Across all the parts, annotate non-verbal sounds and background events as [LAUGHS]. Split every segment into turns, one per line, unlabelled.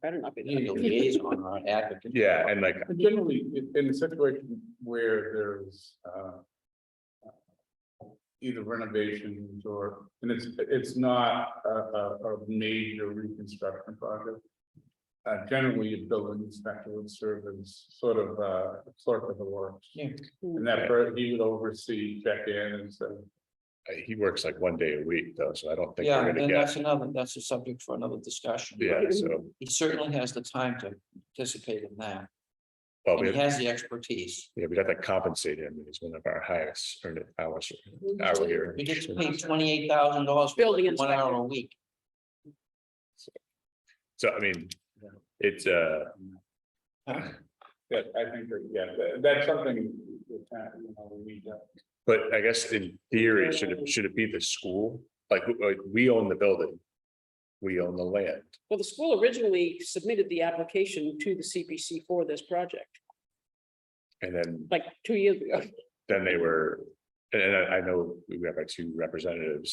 better not be.
You're
[LAUGHS]
the liaison, not advocate.
Yeah, and like,
But Generally, i- in a situation where there's uh. Either renovations or, and it's, it's not a, a, a major reconstruction project. Uh, generally, a building inspector would serve as sort of uh clerk of the works.
Yeah.
And that, per- he would oversee check-in and so.
Uh, he works like one day a week though, so I don't think
Yeah,
we're gonna
and
get,
that's another, that's a subject for another discussion.
yeah, so.
He certainly has the time to participate in that,
Well,
and
we,
he has the expertise.
yeah, we'd have to compensate him. He's one of our highest earned hours. hourly earners.
We get paid twenty-eight thousand dollars.
Building
One
inspector.
hour a week.
So I mean, it's uh,
That, I think that, yeah, that- that's something that, uh, you know, we need to.
but I guess in theory, should it, should it be the school? Like, uh, we own the building. We own the land.
Well, the school originally submitted the application to the CPC for this project,
And then,
like two years ago. [LAUGHS]
then they were, and and I I know we have our two representatives.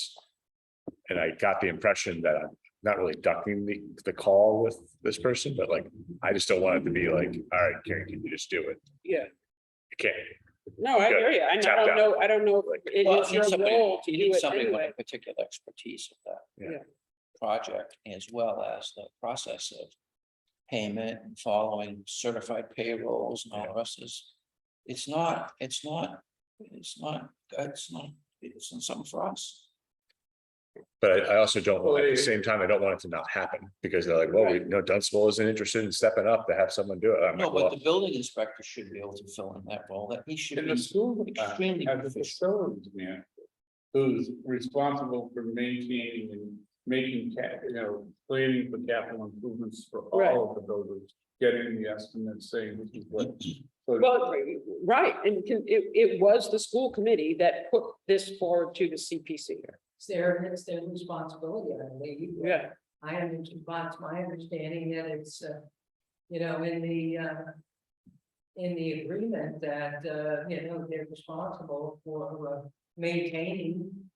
And I got the impression that I'm not really ducking the, the call with this person, but like, I just don't want it to be like, all right, Karen, can you just do it?
Yeah,
You can't.
no, I hear you. I know- I
Tapped out.
don't know, I don't know. if It
Well,
is
you need
your
somebody,
role to
you
do
need
it
somebody with
anyway.
a particular expertise of that.
Yeah.
Yeah.
Project as well as the process of payment and following certified payrolls and all the rest is. It's not, it's not, it's not, it's not, it's not something for us.
But I- I also don't,
Well,
at the
it-
same time, I don't want it to not happen because they're like, well, we know Dunstable isn't interested in stepping up to have someone do it. I'm
No, but
like, well,
the building inspector should be able to fill in that role, that he should
In the
be
school, uh,
extremely
as a
proficient.
facilities man, who's responsible for maintaining and making cap, you know, planning for capital improvements for
Right.
all of the buildings. Getting the estimates, saying this is
[CLEARS THROAT]
what. so-
Well, right, and can- it, it was the school committee that put this forward to the CPC.
It's their, it's their responsibility, I believe.
Yeah.
I am, it's my understanding that it's, uh, you know, in the, uh, in the agreement that, uh, you know, they're responsible for uh, maintaining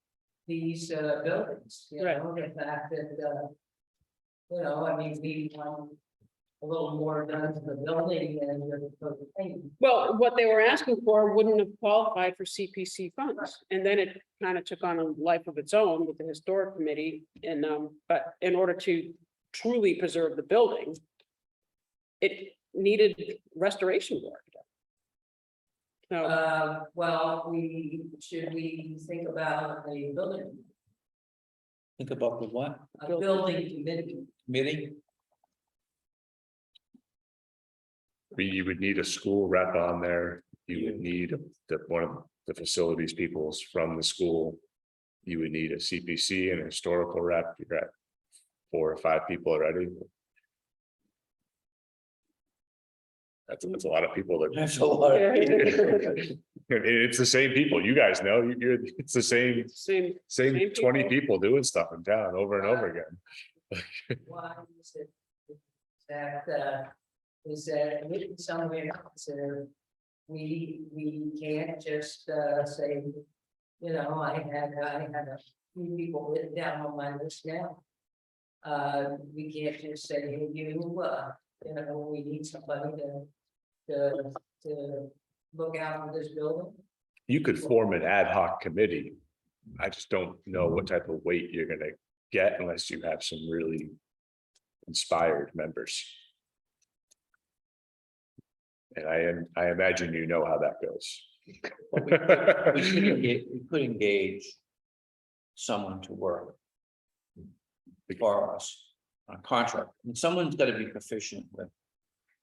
these, uh, buildings, you
Right.
know, the fact that, uh, you know, I mean, we want a little more done to the building than the the thing.
Well, what they were asking for wouldn't have qualified for CPC funds, and then it kind of took on a life of its own with the historic committee and, um, but in order to truly preserve the building. It needed restoration work. So,
Uh, well, we, should we think about the building,
Think about the what,
a building committee?
committee?
we- you would need a school rep on there. You would need the, one of the facilities peoples from the school. You would need a CPC and a historical rep. You're at four or five people already. That's, that's a lot of
[LAUGHS]
people that. [LAUGHS]
That's a lot.
It- It's the same people, you guys know, you- you're, it's the same,
same,
same
Same
twenty people doing stuff in town over and over again.
Why is it? That, uh, is that written somewhere else, or we, we can't just, uh, say, you know, I had, I had a few people written down on my list now. Uh, we can't just say, hey, you, uh, you know, we need somebody to, to, to look out for this building.
You could form an ad hoc committee. I just don't know what type of weight you're gonna get unless you have some really inspired members. And I am, I imagine you know how that [LAUGHS]
We should
goes.
engage, we could engage someone to work for us on a contract, and someone's gotta be proficient with.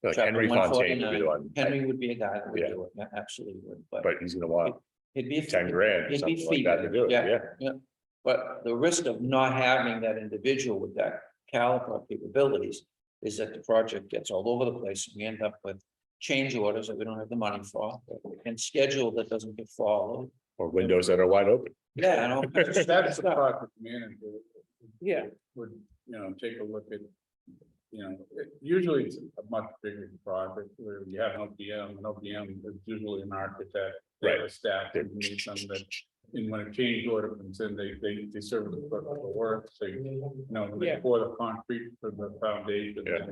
Like Henry
Chapter
Fontaine would be the
149.
one,
Henry would be a guy that would
Yeah.
do it, a- absolutely would, but
but he's gonna want
it'd be. a fee,
ten grand, or
It'd be
something like that to
fee-based,
do it,
yeah.
yeah.
But the risk of not having that individual with that caliber of capabilities is that the project gets all over the place, and we end up with change orders that we don't have the money for, and schedule that doesn't get followed.
Or windows that are wide open.
Yeah, and all kinds of
That's the
stuff.
project manager
yeah,
would, you know, take a look at. You know, it- usually it's a much bigger project where you have an OPM, an OPM is usually an architect. they have a Staff, they need some that And when a change order comes in, they, they, they serve the work, so, you know,
Yeah.
they pour the concrete for the foundation.
Yeah.